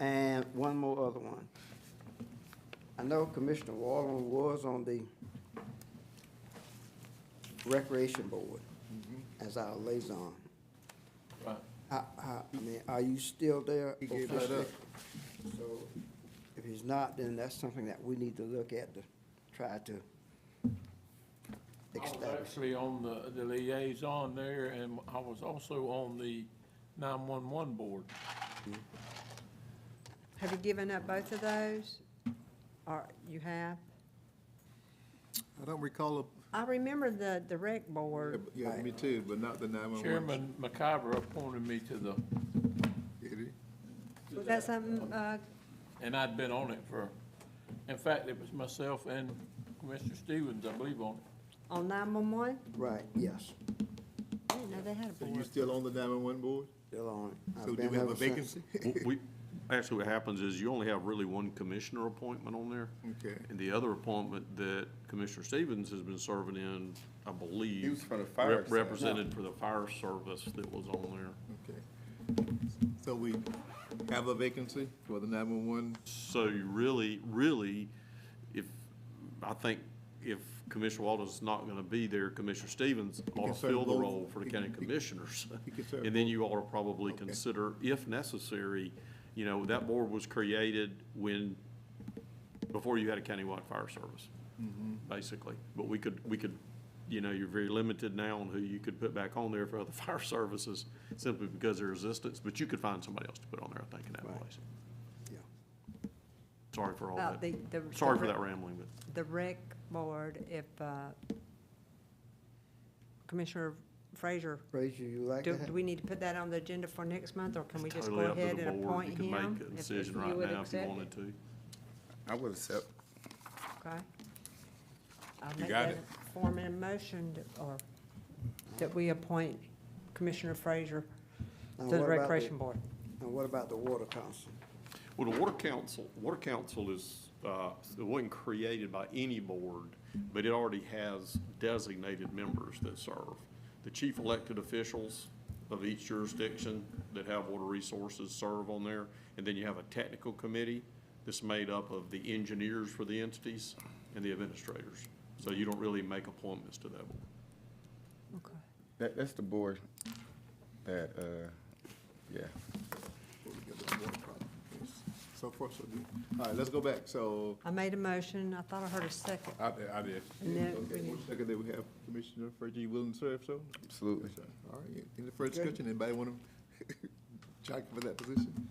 and one more other one. I know Commissioner Wallen was on the Recreation Board Mm-hmm. as our liaison. Right. I, I, I mean, are you still there? He gave that officially? up. So if he's not, then that's something that we need to look at to try to I was establish. actually on the, the liaison there, and I was also on the nine-one-one board. Have you given up both of those? Or you have? I don't recall, a- I remember the, the rec board. yeah, me too, but not the 911. Chairman McIver appointed me to the, Did he? Was that something, uh, and I'd been on it for, in fact, it was myself and Commissioner Stevens, I believe, on it. on nine-one-one? Right, yes, I didn't know they had a So you board. still on the 911 board? still on it. I've So do been we have ever a since. vacancy? We, actually, what happens is you only have really one commissioner appointment on there. Okay. And the other appointment that Commissioner Stevens has been serving in, I believe. He was for the fire rep- service. Represented for the fire service that was on there. Okay. So we have a vacancy for the 911? So you really, really, if, I think if Commissioner Walden's not gonna be there, Commissioner Stevens ought can to serve fill the both. role for the He county can- he- commissioners. he can serve And then you ought to probably Okay. consider, if necessary, you know, that board was created when, before you had a countywide fire service, Mm-hmm. basically. But we could, we could, you know, you're very limited now on who you could put back on there for other fire services, simply because of resistance, but you could find somebody else to put on there, I think, in that Right. place. Yeah. Sorry for all About that. Oh, the, the. Sorry for the that rambling, but. rec- The rec board, if, uh, Commissioner Frazier, Frazier, you like do, that? do we need to put that on the agenda for next month, or can we It's just go totally up to ahead the and board. appoint him? You can if- make a if decision you right would now if you accept wanted it? to. I would accept. Okay. I'll You make got that it. a form in a motion that- or that we appoint Commissioner Frazier Now, to the what about Recreation Board. And what about the Water Council? Well, the Water Council, Water Council is, uh, it wasn't created by any board, but it already has designated members that serve. The chief elected officials of each jurisdiction that have water resources serve on there. And then you have a technical committee that's made up of the engineers for the entities and the administrators. So you don't really make appointments to that board. Okay. That, that's the board that, uh, yeah. So far, so good. All right, let's go back. So, I made a motion. I thought I heard a second. I did, I did. And then we Okay, need- one second that we have Commissioner Frazier, you willing to serve, so? Absolutely. Yes, sir. All right, any further discussion? Anybody want to jockey for that position?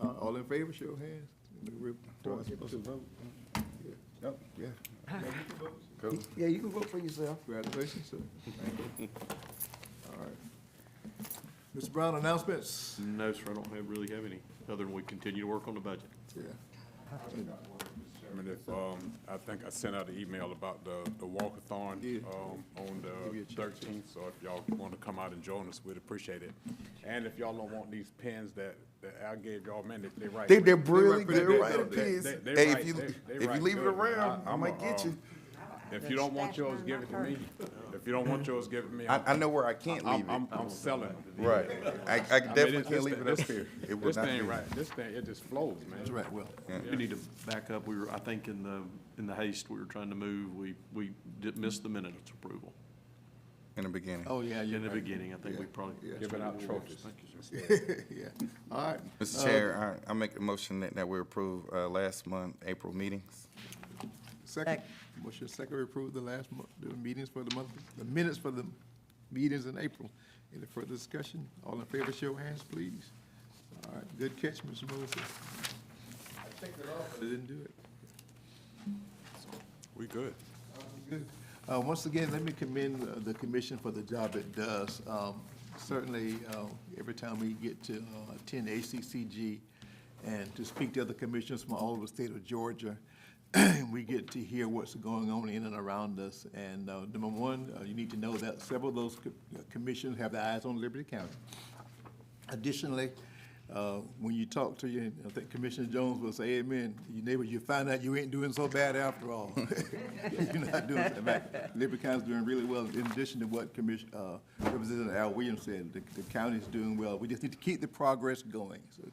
Uh, all in favor, show your hands. We're- Do I supposed to vote? Yeah. Nope, yeah. Cool. Yeah, you can vote for yourself. Congratulations, sir. All right. Mr. Brown, announcements? No, sir, I don't have, really have any, other than we continue to work on the budget. Yeah. Chairman, if, um, I think I sent out an email about the, the walkathon, Yeah. um, on Give you a the chance. thirteenth, so if y'all wanna come out and join us, we'd appreciate it. And if y'all don't want these pins that, that I gave y'all, man, they, they right. They, they're brilliant, represent they're right themselves. pins. They- they- they Hey, right- if you, they- they if you right leave it good, man. around, I- I I'm might a, get you. um, If you don't want Stash mine yours, in give my it to purse. me. If you don't want yours, give it to me. I, I know where I can't I'm, leave I'm, it. I'm selling it. Right. I, I I mean, definitely this- can't this leave thing- it up this- here. It will This not be. thing, right, this thing, it just flows, man. That's right, Will. We need to back up. We were, I think in the, in the haste we were trying to move, we, we did miss the minutes approval. In the beginning. Oh, yeah, In you're the right. beginning, I think we probably. Yeah. Giving out trophies. Yeah, all right. Mr. Chair, I, I make a motion that, that we approve, uh, last month, April meetings. Second, motion second to approve the last month, the meetings for the month, the minutes for the meetings in April. Any further discussion? All in favor, show your hands, please. All right, good catch, Mr. Moses. I checked it off, but I didn't do it. We good. Uh, Once again, let me commend uh, the commission for the job it does. Um, Certainly, uh, every time we get to uh, attend ACCG and to speak to other commissioners from all over the state of Georgia, we get to hear what's going on in and around us. And uh, number one, uh, you need to know that several of those co- commissions have their eyes on Liberty County. Additionally, uh, when you talk to your, I think Commissioner Jones will say, amen, your neighbor, you find out you ain't doing so bad after all. You're not doing, in fact, Liberty County's doing really well, in addition to what Commission, uh, Representative Al Williams said, the, the county's doing well. We just need to keep the progress going. So